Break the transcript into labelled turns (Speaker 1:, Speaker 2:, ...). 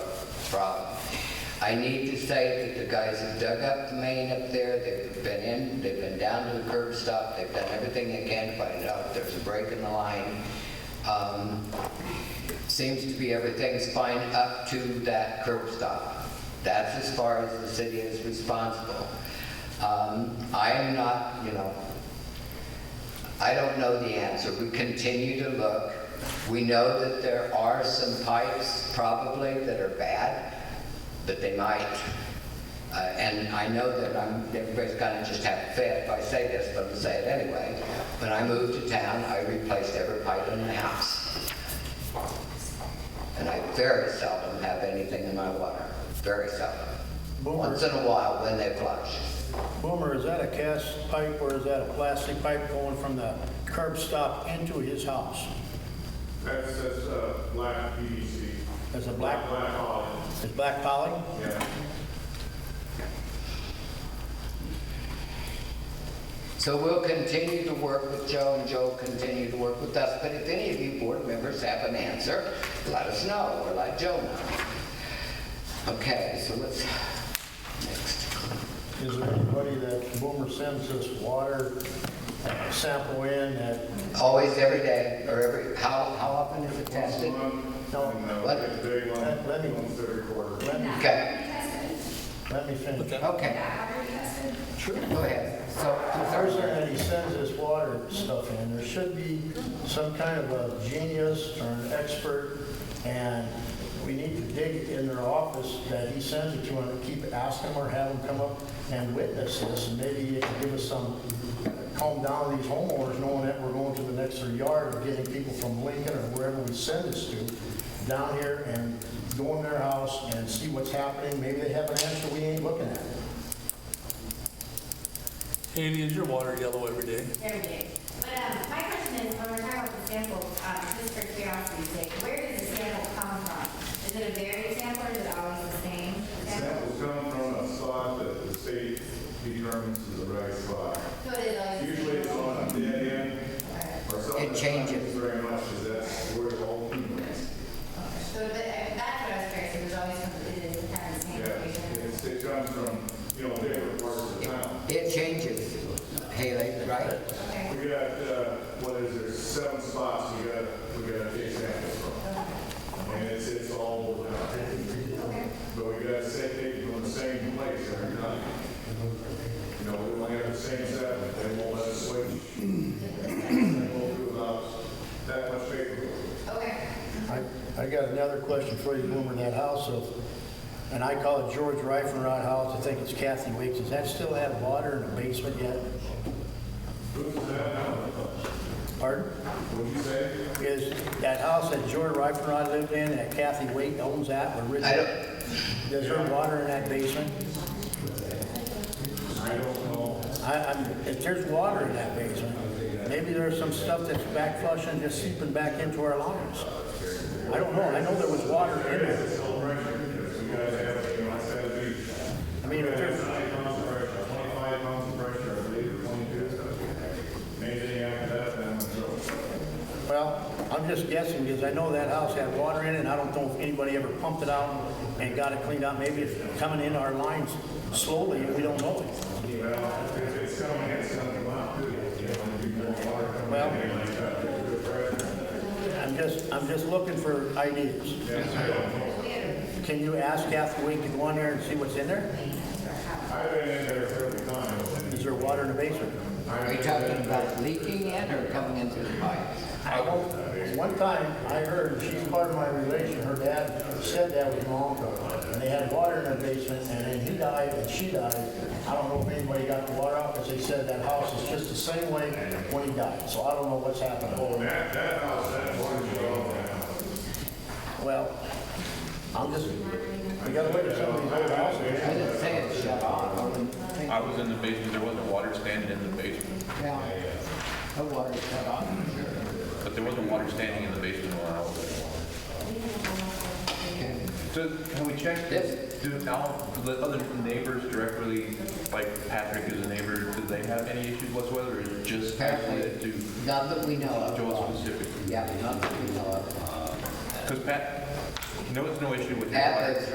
Speaker 1: problem. I need to say that the guys have dug up the main up there, they've been in, they've been down to the curb stop, they've done everything they can to find out if there's a break in the line. Um, Seems to be everything's fine up to that curb stop. That's as far as the city is responsible. Um, I am not, you know, I don't know the answer. We continue to look. We know that there are some pipes probably that are bad, but they might. Uh, and I know that I'm, everybody's gonna just have a fit if I say this, but I'm gonna say it anyway. When I moved to town, I replaced every pipe in the house. And I very seldom have anything in my water, very seldom.
Speaker 2: Boomer.
Speaker 1: Once in a while when they flush.
Speaker 2: Boomer, is that a cast pipe or is that a plastic pipe going from the curb stop into his house?
Speaker 3: That's, that's, uh, black PVC.
Speaker 2: That's a black-
Speaker 3: Black olive,
Speaker 2: Is black poly?
Speaker 3: yeah.
Speaker 1: So we'll continue to work with Joe, and Joe will continue to work with us, but if any of you board members have an answer, let us know, or let Joe know. Okay, so let's, next.
Speaker 2: Is there anybody that Boomer sends this water sample in that,
Speaker 1: Always, every day, or every, how, how often is it tested?
Speaker 2: No.
Speaker 1: What?
Speaker 3: And, uh, day one,
Speaker 2: Let- let me-
Speaker 3: once every quarter.
Speaker 2: let me,
Speaker 1: Okay,
Speaker 2: let me finish.
Speaker 1: okay. Go ahead. So,
Speaker 2: The person that he sends this water stuff in, there should be some kind of a genius or an expert, and we need to dig in their office that he sends it to, and keep asking or have them come up and witness this, and maybe it can give us some, calm down these homeowners, knowing that we're going to the next their yard, or getting people from Lincoln or wherever we send this to, down here and go in their house and see what's happening, maybe they have an answer we ain't looking at.
Speaker 4: Amy, is your water yellow every day?
Speaker 5: Very big. But um, my question is, when we're talking about the sample, um, just for curiosity's sake, where does the sample come from? Is it a varied sample or is it always the same? sample?
Speaker 3: Samples come from a spot that the state determines is the right spot.
Speaker 5: So it is always the same?
Speaker 3: Usually it's on a dead end or something.
Speaker 1: It
Speaker 3: that
Speaker 1: changes.
Speaker 3: happens Very much, is that's where the whole thing is.
Speaker 5: So but, uh, that's what I was curious, it was always, from- it is kind of the same
Speaker 3: Yeah,
Speaker 5: location?
Speaker 3: it's, it comes from, you know, different parts of town.
Speaker 1: it changes, Haley, right?
Speaker 5: Okay.
Speaker 3: We got, uh, what is there, seven spots we gotta, we gotta take samples from. And it's, it's all over town.
Speaker 5: Okay.
Speaker 3: But we gotta say they from the same place every time. You know, we only have the same seven, they won't let us switch. They won't do about that much paperwork.
Speaker 5: Okay.
Speaker 2: I I got another question for you, Boomer, that house of, and I call it George Reifenrod House, I think it's Kathy Weeks, does that still have water in the basement yet?
Speaker 3: Who's that now?
Speaker 2: Pardon?
Speaker 3: What'd you say?
Speaker 2: Is that house that George Reifenrod lived in, that Kathy Weeks owns that, or
Speaker 1: I
Speaker 2: Richard?
Speaker 1: don't,
Speaker 2: Is there water in that basement?
Speaker 3: I don't know.
Speaker 2: I, I'm, if there's water in that basement, maybe there's some stuff that's back flushing, just seeping back into our lawns. I don't know, I know there was water in
Speaker 3: There is
Speaker 2: there.
Speaker 3: a celebration, because we gotta have, you know, it's gotta be.
Speaker 2: I mean, if there's,
Speaker 3: Twenty-five pounds of pressure, twenty-five pounds of pressure, I believe, or twenty-two. Anything after that, then I'm in trouble.
Speaker 2: Well, I'm just guessing, because I know that house had water in it, and I don't know if anybody ever pumped it out and got it cleaned out. Maybe it's coming in our lines slowly, and we don't know it.
Speaker 3: Well, if it's coming, it's gonna come out, too. You know, it'd be more water coming
Speaker 2: Well-
Speaker 3: in like that, it'd be good pressure.
Speaker 2: I'm just, I'm just looking for ideas. Can you ask Kathy Wink to go in there and see what's in there?
Speaker 3: I've been in there several times.
Speaker 2: Is there water in the basement?
Speaker 1: are you talking about leaking in or coming in through the pipes?
Speaker 2: I don't, one time, I heard, she's part of my relation, her dad said that was my uncle, and they had water in their basement, and then he died, and she died. I don't know if anybody got the water out, because they said that house is just the same way when he died, so I don't know what's happened.
Speaker 3: Oh, That, that house, that one, you know,
Speaker 2: Well, I'm just, we gotta look at some of these old houses.
Speaker 1: I didn't say it shut off. I wouldn't think-
Speaker 6: I was in the basement, there wasn't water standing in the basement,
Speaker 1: Yeah, the water shut off,
Speaker 6: but there wasn't water standing in the basement when I was there.
Speaker 1: okay.
Speaker 6: So can we check
Speaker 1: Yes.
Speaker 6: this? Do now the other neighbors directly, like Patrick is a neighbor, do they have any issues whatsoever, or is it just isolated to
Speaker 1: Not that we know of.
Speaker 6: Joel specifically?
Speaker 1: Yeah, not that we know of.
Speaker 6: Because Pat, no, it's no issue with his
Speaker 1: Pat
Speaker 6: water.
Speaker 1: lives